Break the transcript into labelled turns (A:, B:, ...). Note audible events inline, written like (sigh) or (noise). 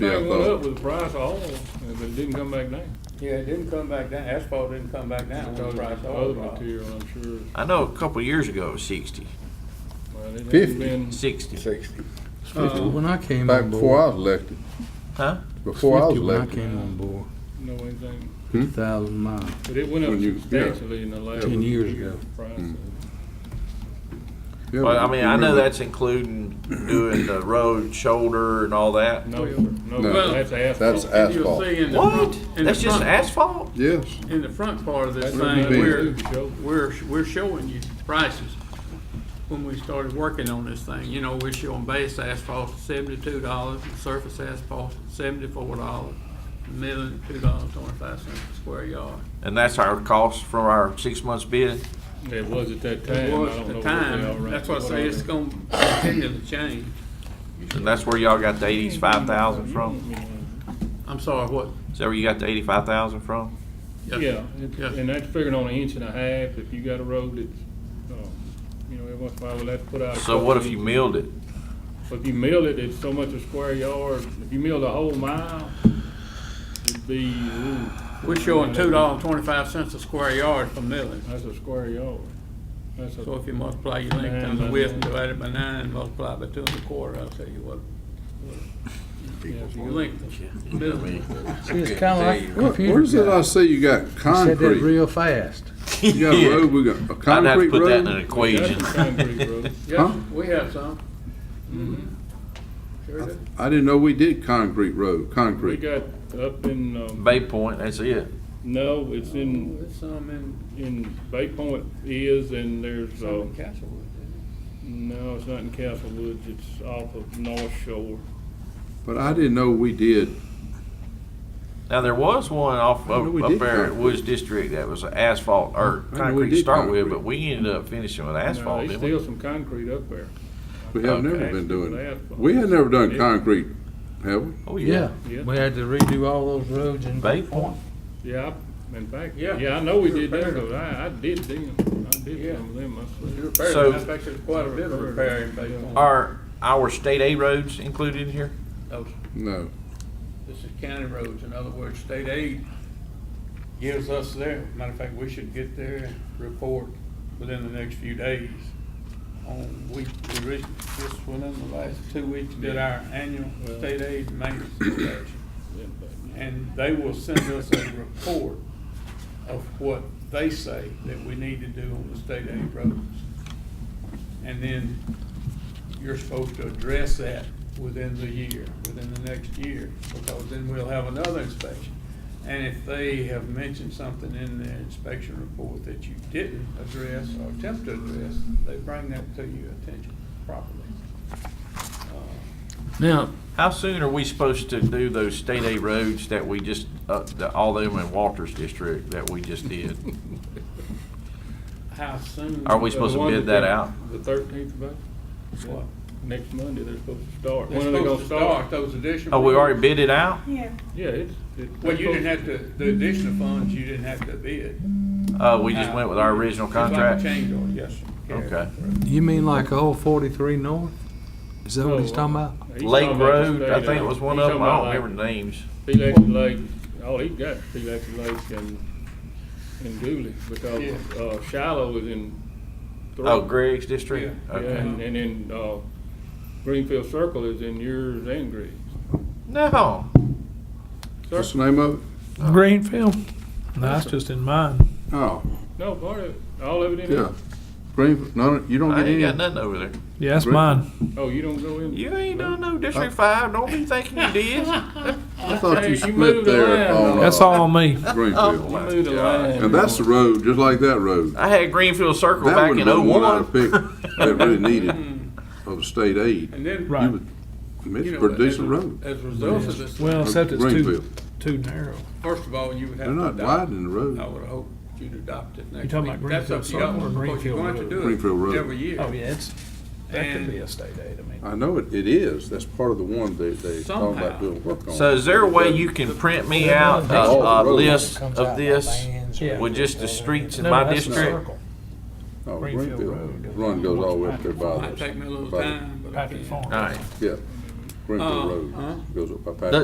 A: Yeah, uh, I
B: thing went
A: thought-
B: up with the price of oil, but it didn't come back down.
C: Yeah, it didn't come back down, asphalt didn't come back down,
B: Because
C: the
B: of
C: price of
B: the
C: oil
B: other
C: dropped.
B: material, I'm sure.
D: I know a couple of years ago it was 60,
B: Well, it ain't
A: 50.
B: been-
D: 60.
A: Sixty.
E: Fifty when I came
A: Oh. Back
E: on
A: before
E: board.
A: I was elected,
D: Huh?
A: before I was
E: Fifty when I
A: elected.
E: came on board,
B: No anything,
E: fifty thousand miles.
B: but it went up
A: When you- yeah.
B: substantially in the last.
E: Ten years ago.
B: Price
A: Mm.
B: of-
A: Yeah,
D: Well, I
A: but
D: mean,
A: you
D: I know
A: remember-
D: that's including doing the road, shoulder, and all that.
B: No,
A: No,
B: no, that's asphalt.
A: That's asphalt.
C: You'll see in the
D: What?
C: front, in the
D: That's just
C: front,
D: asphalt?
A: Yes,
C: in the front part of this
B: That's
C: thing,
B: what we
C: we're,
B: do, Joe.
C: we're, we're showing you prices. When we started working on this thing, you know, we're showing base asphalt seventy-two dollars, surface asphalt seventy-four dollars, milling two dollars twenty-five cents a square yard.
D: And that's our cost from our six months bid?
B: It was at that time. I
C: It
B: don't
C: was
B: know
C: at
B: what
C: the
B: they all
C: time,
B: ran-
C: that's why I
B: what
C: say
B: all
C: it's
B: they-
C: gonna continue to change.
D: And that's where y'all got the 85,000 from?
C: I'm sorry, what?
D: Is that where you got the 85,000 from?
B: Yeah, it-
C: Yes.
B: and that's figuring on an inch and a half, if you got a road that's, uh, you know, every once in a while, we'll have to put out. a
D: So what if
B: couple
D: you
B: of-
D: milled it?
B: But If you milled it, it's so much a square yard, if you milled a whole mile, it'd be, ooh.
C: We're showing two dollars twenty-five cents a square yard for milling.
B: That's a square yard. That's
C: So
B: a,
C: if you multiply your length times the width and divide it by nine, and multiply by two and a quarter, I'll tell you what.
B: yeah, if
C: Your
B: you-
C: length, is milling.
E: See, it's kinda like a
A: Where-
E: computer
A: where's it I
E: guy.
A: say you got
E: Said that
A: concrete?
E: real fast.
A: You got a road, we got a
D: I'd have to
A: concrete
D: put that in an
A: road?
B: That's
D: equation.
B: some concrete road.
C: (laughs) Yeah, we have some. Sure do.
A: I didn't know we did concrete road,
B: We
A: concrete.
B: got up in, um,
D: Bay Point, that's it.
B: no, it's in,
C: There's some in,
B: in Bay Point is, and there's,
C: some
B: uh,
C: in Castlewood.
B: no, it's not in Castlewood, it's off of North Shore.
A: But I didn't know we did,
D: Now, there was one off
A: I know
D: up,
A: we
D: up
A: did
D: there at
A: concrete.
D: Woods District that was asphalt or
A: I know we
D: concrete to
A: did
D: start with,
A: concrete.
D: but we ended up finishing with
B: No,
D: asphalt,
B: There's
D: didn't we?
B: still some concrete up there.
A: we have never
B: Okay.
A: been doing,
B: Asphalt.
A: we had never done
B: Yeah.
A: concrete, have we?
D: Oh,
E: Yeah,
D: yeah.
B: Yeah.
E: we had to redo all those roads and.
D: Bay Point.
B: Yeah, I- in fact,
C: Yeah.
B: yeah, I know we did
C: Repaired
B: them,
C: them.
B: but I, I did them. I did
C: Yeah.
B: some of them myself.
C: Repairs,
D: So-
C: in fact, there's quite a bit of repair in Bay Point.
D: Are our state A roads included in here?
C: Those-
A: No.
C: This is county roads, in other words, state aid gives us their, matter of fact, we should get their report within the next few days. On, we, we re- just within the last two weeks did our annual
B: Well-
C: state aid maintenance inspection.
B: Yeah, but-
C: And they will send us a report of what they say that we need to do on the state aid roads. And then you're supposed to address that within the year, within the next year, because then we'll have another inspection. And if they have mentioned something in their inspection report that you didn't address or attempt to address, they bring that to your attention properly. Uh,
E: Now,
D: How soon are we supposed to do those state A roads that we just, uh, the- all them in Walters District that we just did?
C: How soon?
D: Are we
B: The
D: supposed to
B: one
D: bid that
B: they-
D: out?
B: The thirteenth of April,
C: What?
B: next Monday, they're supposed to start.
C: They're
B: When are they
C: supposed
B: gonna
C: to start
B: start?
C: those additional.
D: Oh, we already
C: roads.
D: bid it out?
F: Yeah,
B: Yeah, it's. it's-
C: Well, you didn't have to, the additional funds, you didn't have to bid.
D: Uh, we just went with our original
C: It's like a
D: contract?
C: change order, yes, sir. Carry
D: Okay.
C: it
E: you mean like old forty-three north? Is that what he's
B: No,
E: talking about?
B: He's
D: Lake
B: talking about the
D: Road, I
B: state
D: think it
B: aid.
D: was one
B: He's
D: of them,
B: talking
D: I
B: about
D: don't
B: like
D: remember the names.
B: Peleac Lake, all he got is Peleac Lake and, and Dooley, because,
C: Yeah.
B: uh, Shiloh is in.
D: Oh,
B: Throat.
D: Greg's district?
B: Yeah,
C: Yeah.
D: Okay.
B: and, and then, uh, Greenfield Circle is in yours and Greg's.
D: No,
A: What's the name of it?
G: Greenfield? No, that's just in mine.
A: Oh,
B: No, part of, it, all of it in
A: yeah.
B: it?
A: Green, no, you don't
D: I
A: get
D: ain't
A: any?
D: got nothing over there.
G: Yeah, that's
A: Green-
G: mine.
B: Oh, you don't go in?
D: You ain't
B: No.
D: done no District Five, don't be thinking you (laughs) did.
A: I thought
B: Hey,
A: you
B: you
A: split
B: moved the
A: there
B: line.
A: on. uh,
G: That's all on me.
A: Greenfield.
D: Oh,
B: You moved the line.
A: And that's the road, just like that road.
D: I had Greenfield Circle
A: That
D: back
A: would have
D: in oh
A: been one I'd have
D: oh-one.
A: picked
D: (laughs)
A: that really needed of state aid.
C: And then,
G: Right.
A: You would,
C: you
A: it's
C: know, uh,
A: pretty
C: as a-
A: decent road.
C: As a result of this,
G: Well, except it's too,
A: Greenfield.
G: too narrow.
C: first of all, you would have
A: They're
C: to
A: not
C: adopt.
A: widening the
C: I
A: road.
C: would hope you'd adopt it next week.
G: talking about
C: That's up to
G: Greenfield
C: y'all,
G: Circle or
C: because you're going to
G: Greenfield
C: do it.
A: Greenfield Road.
C: Every year.
G: Oh, yeah, it's, that
C: And-
G: could be a state aid, I mean.
A: I know it, it is. That's part of the one they, they talking
C: Somehow.
A: about doing work on.
D: So is there a way you can print me out a, a list of this
G: Yeah.
D: with just the streets in
G: No,
D: my
G: that's the
D: district?
G: circle.
A: Oh,
G: Greenfield
A: Greenfield,
G: Road.
A: run goes all the way up there by
C: Might
A: the,
C: take me a little
A: by the-
C: time, but I
G: Patrick
C: can.
G: Farm.
D: All right.
A: yeah. Greenfield
C: Uh,
A: Road
C: uh.
A: goes up by
D: The-
A: Patrick.